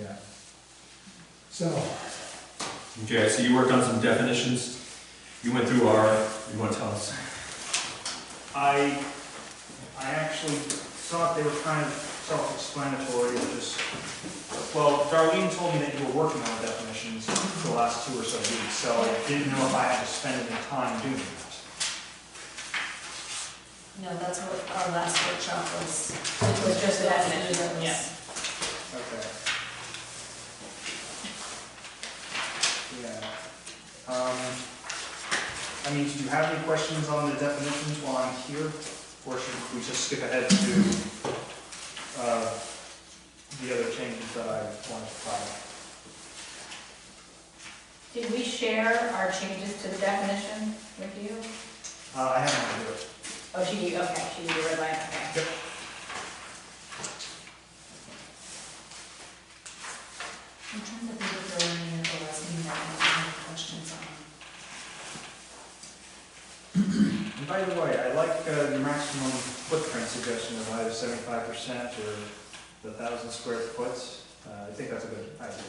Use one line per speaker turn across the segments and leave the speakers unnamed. Yeah. So,
Okay, so you worked on some definitions. You went through our, you want to tell us?
I, I actually thought they were kind of self-explanatory, or just, well, Darlene told me that you were working on the definitions for the last two or so weeks, so I didn't know if I had to spend any time doing that.
No, that's what our last workshop was. It
was just
That
that measure,
was-
yeah.
Okay. Yeah. Um, I mean, do you have any questions on the definitions while I'm here? Or should we just skip ahead to, uh, the other changes that I wanted to file?
Did we share our changes to the definition with you?
Uh, I haven't had to do it.
Oh, she did, okay, she did the red line, okay.
I'm trying to think if there were any of the last meeting that I had questions on.
And by the way, I like uh, the maximum footprint suggestion of either seventy-five percent or the thousand square foot. Uh, I think that's a good idea.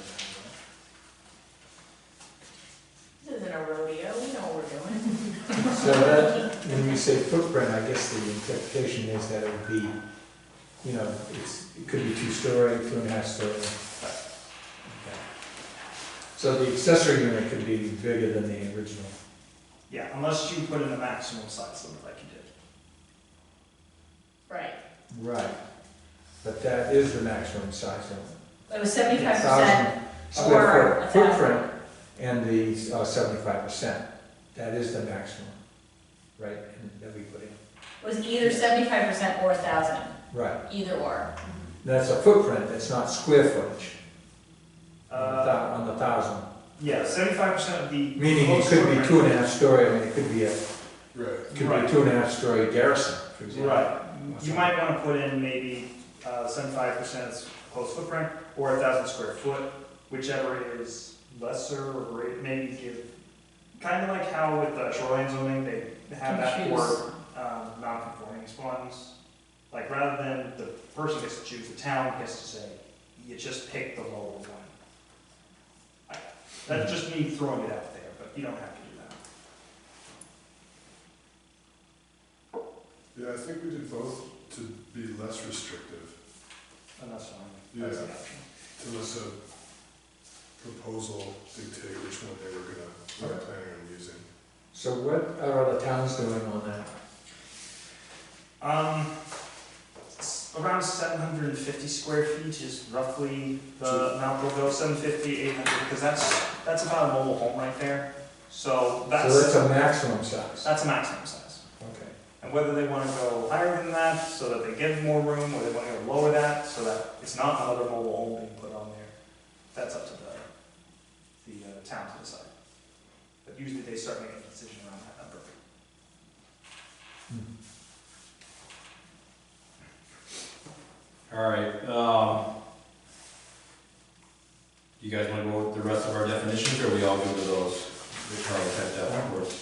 This isn't a rodeo, we know what we're doing.
so that, when we say footprint, I guess the interpretation is that it would be, you know, it's, it could be two-story, two and a half story. Okay. So the accessory unit could be bigger than the original.
Yeah, unless you put in a maximum size limit like you did.
Right.
Right. But that is the maximum size limit.
It was seventy-five percent
1,000
or
Square
a
foot footprint
thousand.
and the uh, seventy-five percent. That is the maximum, right, and that we put in.
Was either seventy-five percent or a thousand,
Right.
either or.
That's a footprint, that's not square footage on the
Uh,
thou- on the thousand.
yeah, seventy-five percent of the.
Meaning it could be two and a half story, I mean, it could be a,
Right.
could be
Right.
two and a half story garrison, for example.
Right, you might wanna put in maybe uh, seventy-five percent close footprint or a thousand square foot, whichever is lesser, or it maybe give, kinda like how with the shoreline zoning, they have that for, um, non-conforming spawns. Like, rather than the person gets to choose, the town gets to say, you just pick the lower one. I- That's
Mm-hmm.
just me throwing it out there, but you don't have to do that.
Yeah, I think we did both to be less restrictive,
And Oh, that's fine, that's the option.
to less a proposal dictate which one they were gonna, they were planning on using.
So what are other towns doing on that?
Um, s- around seven hundred and fifty square feet is roughly the amount we'll go, 750, 800, because that's, that's about a mobile home right there. So
So
that's,
that's a maximum size,
that's a maximum size.
okay.
And whether they wanna go higher than that, so that they get more room, or they wanna go lower that, so that it's not another mobile home being put on there, that's up to the, the uh, town to decide. But usually they start making a decision around that number.
All right, um, you guys want to go with the rest of our definitions, or are we all good with those? We probably had that backwards.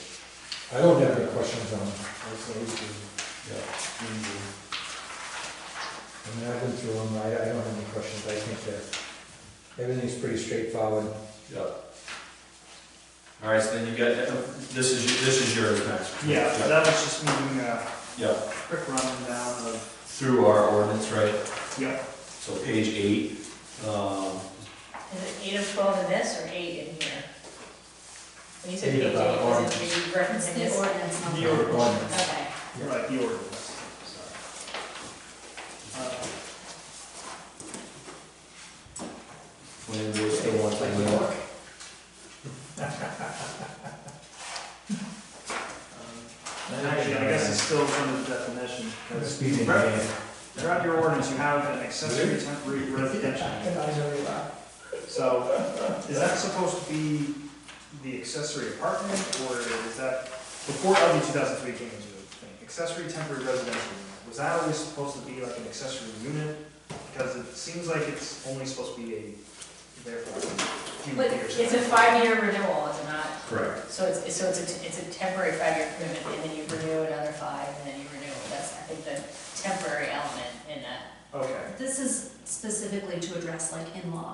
I don't have any questions on, it.
That's always good. And, uh,
I mean, I've been through them, I, I don't have any questions, I think that everything's pretty straightforward.
Yeah. All right, so then you got, uh, this is, this is yours, Max.
Yeah, that was just moving a
Yeah,
quick rundown of,
through our ordinance, right?
yeah,
So page eight, um,
Is it eight of twelve in this or eight in here? When you said
Eight
page eight,
of our
was it, were you
It's
referencing
the
this?
ordinance number.
The order.
Ordinance.
Okay.
Right, the ordinance, sorry. Uh,
when we still want to.
um, and Actually, I guess it's still under the definition.
Let's
because
be in
throughout-
there.
Throughout your ordinance, you have an accessory temporary residential. So, is that supposed to be the accessory apartment, or is that, before LD two thousand three came into thing, accessory temporary residential unit, was that always supposed to be like an accessory unit? Because it seems like it's only supposed to be a, therefore, a few
But
years.
it's a five-year renewal, is it not?
Correct.
So it's, so it's a, it's a temporary five-year commitment, and then you renew another five, and then you renew, that's, I think, the temporary element in that.
Okay.
This is specifically to address like in-law